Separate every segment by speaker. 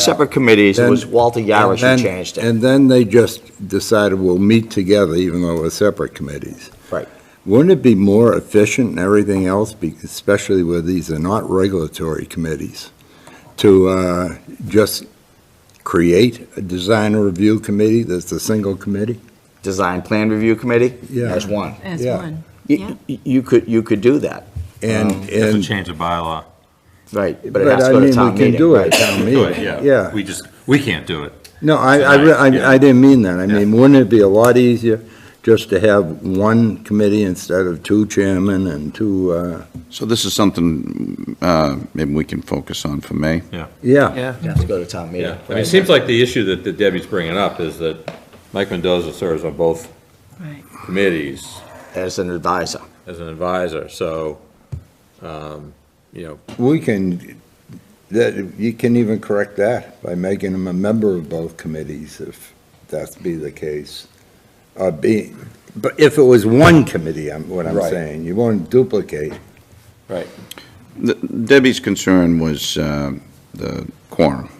Speaker 1: separate committees, it was
Speaker 2: Then-
Speaker 1: Walter Yarish
Speaker 2: And
Speaker 1: who
Speaker 2: then-
Speaker 1: changed it.
Speaker 2: And then they just decided we'll meet together, even though we're separate committees.
Speaker 1: Right.
Speaker 2: Wouldn't it be more efficient and everything else, be- especially where these are not regulatory committees, to uh, just create a design review committee that's a single committee?
Speaker 1: Design Plan Review Committee
Speaker 2: Yeah.
Speaker 1: as one.
Speaker 3: As
Speaker 2: Yeah.
Speaker 3: one. Yeah.
Speaker 1: You you could, you could do that,
Speaker 2: And,
Speaker 4: It's a
Speaker 2: and,
Speaker 4: change of bylaw.
Speaker 1: right, but it
Speaker 2: but
Speaker 1: has
Speaker 2: I
Speaker 1: to go
Speaker 2: mean,
Speaker 1: to
Speaker 2: we
Speaker 1: town
Speaker 2: can
Speaker 1: meeting.
Speaker 2: do it,
Speaker 1: right?
Speaker 2: town
Speaker 4: Do it,
Speaker 2: meeting,
Speaker 4: yeah.
Speaker 2: yeah.
Speaker 4: We just, we can't do it.
Speaker 2: No, I, I, re- I I didn't mean that. I mean, wouldn't it be a lot easier just to have one committee instead of two chairmen and two, uh,
Speaker 5: So this is something uh, maybe we can focus on for May.
Speaker 2: yeah.
Speaker 1: Has to go to town meeting.
Speaker 4: Yeah, I mean, it seems like the issue that that Debbie's bringing up is that Mike Mendoza serves on both
Speaker 3: Right.
Speaker 4: committees
Speaker 1: As an advisor.
Speaker 4: as an advisor, so, um, you know,
Speaker 2: We can, that, you can even correct that by making him a member of both committees if that be the case. Uh, be, but if it was one committee, I'm, what I'm
Speaker 4: Right.
Speaker 2: saying, you won't duplicate.
Speaker 5: The- Debbie's concern was uh, the quorum.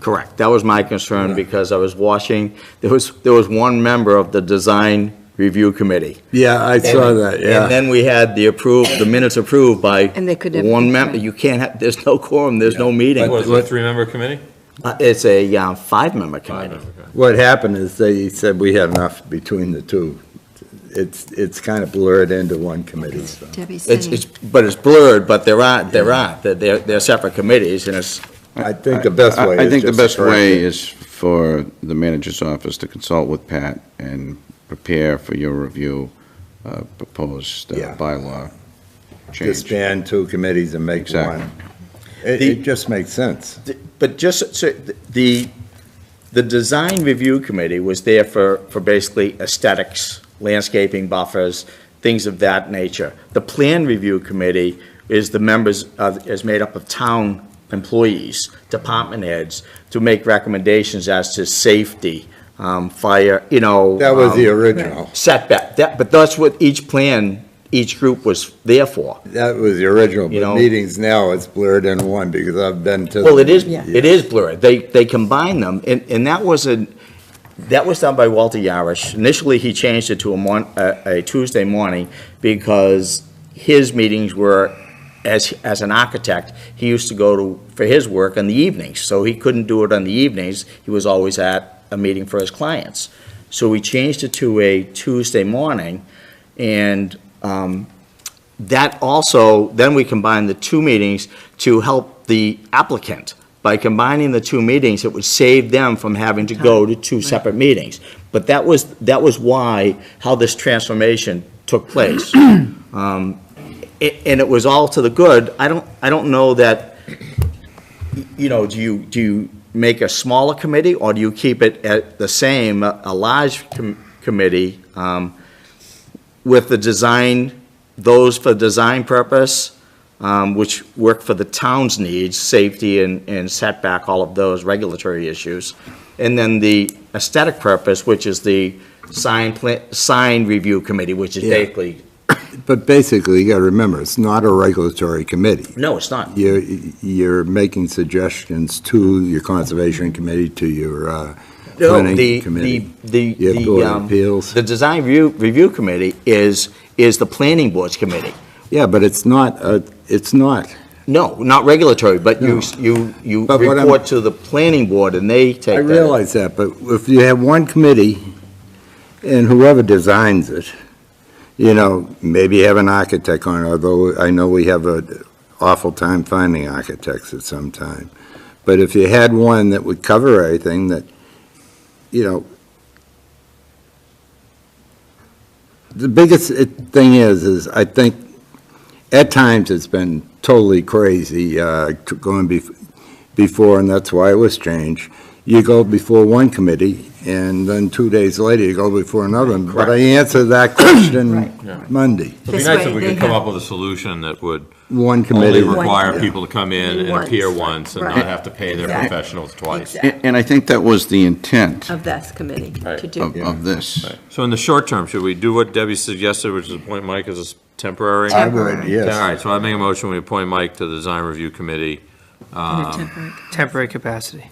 Speaker 1: Correct. That was my concern because I was watching, there was, there was one member of the Design Review Committee.
Speaker 2: Yeah, I saw
Speaker 1: And-
Speaker 2: that, yeah.
Speaker 1: And then we had the approved, the minutes approved by.
Speaker 3: And they could never
Speaker 1: One
Speaker 3: be
Speaker 1: member,
Speaker 3: correct.
Speaker 1: you can't have, there's no quorum, there's no meeting.
Speaker 4: what is it, a three-member committee?
Speaker 1: Uh, It's a uh, five-member committee.
Speaker 4: Five-member committee.
Speaker 2: What happened is they said we had enough between the two. It's, it's kind of blurred into one committee, so.
Speaker 3: Debbie's
Speaker 1: It's,
Speaker 3: saying,
Speaker 1: it's, but it's blurred, but there aren't, there aren't, They're- they're, they're separate committees and it's,
Speaker 2: I think the best way
Speaker 5: I- I
Speaker 2: is
Speaker 5: think the
Speaker 2: just to
Speaker 5: best
Speaker 2: correct
Speaker 5: way
Speaker 2: it.
Speaker 5: is for the manager's office to consult with Pat and prepare for your review, uh, proposed uh,
Speaker 2: Yeah.
Speaker 5: bylaw change.
Speaker 2: Disband two committees and make
Speaker 5: Exactly.
Speaker 2: one. It,
Speaker 1: The-
Speaker 2: it just makes sense.
Speaker 1: but just, so, the, the design review committee was there for, for basically aesthetics, landscaping buffers, things of that nature. The plan review committee is the members of, is made up of town employees, department heads, to make recommendations as to safety, um, fire, you know.
Speaker 2: That was the
Speaker 1: um,
Speaker 2: original.
Speaker 1: Setback, that, but that's what each plan, each group was there for.
Speaker 2: That was the original,
Speaker 1: You know-
Speaker 2: but meetings now, it's blurred into one because I've been to.
Speaker 1: Well, it is,
Speaker 3: Yeah.
Speaker 1: it is blurred. They, they combine them, and, and that was a, that was done by Walter Yarish. Initially, he changed it to a mon, a, a Tuesday morning because his meetings were, as, as an architect, he used to go to, for his work in the evenings, so he couldn't do it on the evenings. He was always at a meeting for his clients. So we changed it to a Tuesday morning, and, um, that also, then we combined the two meetings to help the applicant. By combining the two meetings, it would save them from having to go to two separate meetings. But that was, that was why, how this transformation took place. Um, a- And it was all to the good. I don't, I don't know that, you know, do you, do you make a smaller committee, or do you keep it at the same, a a large com- committee um, with the design those for design purpose, um, which work for the town's needs, safety and and setback, all of those regulatory issues. And then the aesthetic purpose, which is the sign, pla- sign review committee, which is
Speaker 2: Yeah.
Speaker 1: basically,
Speaker 2: But basically, you gotta remember, it's not a regulatory committee.
Speaker 1: no, it's not.
Speaker 2: You're, you're making suggestions to your conservation committee, to your, uh,
Speaker 1: No,
Speaker 2: planning
Speaker 1: the-
Speaker 2: committee.
Speaker 1: The,
Speaker 2: Your
Speaker 1: the, the,
Speaker 2: board of
Speaker 1: um,
Speaker 2: appeals.
Speaker 1: the design review, review committee is, is the planning board's committee.
Speaker 2: Yeah, but it's not, uh, it's not.
Speaker 1: No, not regulatory, but you,
Speaker 2: No.
Speaker 1: you, you
Speaker 2: But what I'm-
Speaker 1: report to the planning board and they take
Speaker 2: I
Speaker 1: that.
Speaker 2: realize that, but if you have one committee and whoever designs it, you know, maybe have an architect on, it, although I know we have an awful time finding architects at some time. But if you had one that would cover everything that, you know, the biggest it- thing is, is I think at times it's been totally crazy, uh, t- going bef- before, and that's why it was changed. You go before one committee, and then two days later, you go before another. one. But I answered that question Monday.
Speaker 4: It'd be
Speaker 3: This
Speaker 4: nice
Speaker 3: way
Speaker 4: if we
Speaker 3: they
Speaker 4: could come
Speaker 3: have-
Speaker 4: up with a solution that would
Speaker 2: One committee.
Speaker 4: only
Speaker 3: One.
Speaker 4: require
Speaker 2: Yeah.
Speaker 4: people to come in and
Speaker 3: Once.
Speaker 4: appear once and not
Speaker 3: Right.
Speaker 4: have to pay their
Speaker 3: Exactly.
Speaker 4: professionals twice.
Speaker 3: Exactly.
Speaker 5: A- And I think that was the intent
Speaker 3: of this committee to
Speaker 4: Right. Um,
Speaker 3: do.
Speaker 5: of, of this.
Speaker 4: So in the short term, should we do what Debbie suggested, which is appoint Mike as a s- temporary?
Speaker 2: I would,
Speaker 4: All
Speaker 2: yes.
Speaker 4: right, so I make a motion, we appoint Mike to the design review committee.
Speaker 3: in a temporary-
Speaker 6: temporary capacity.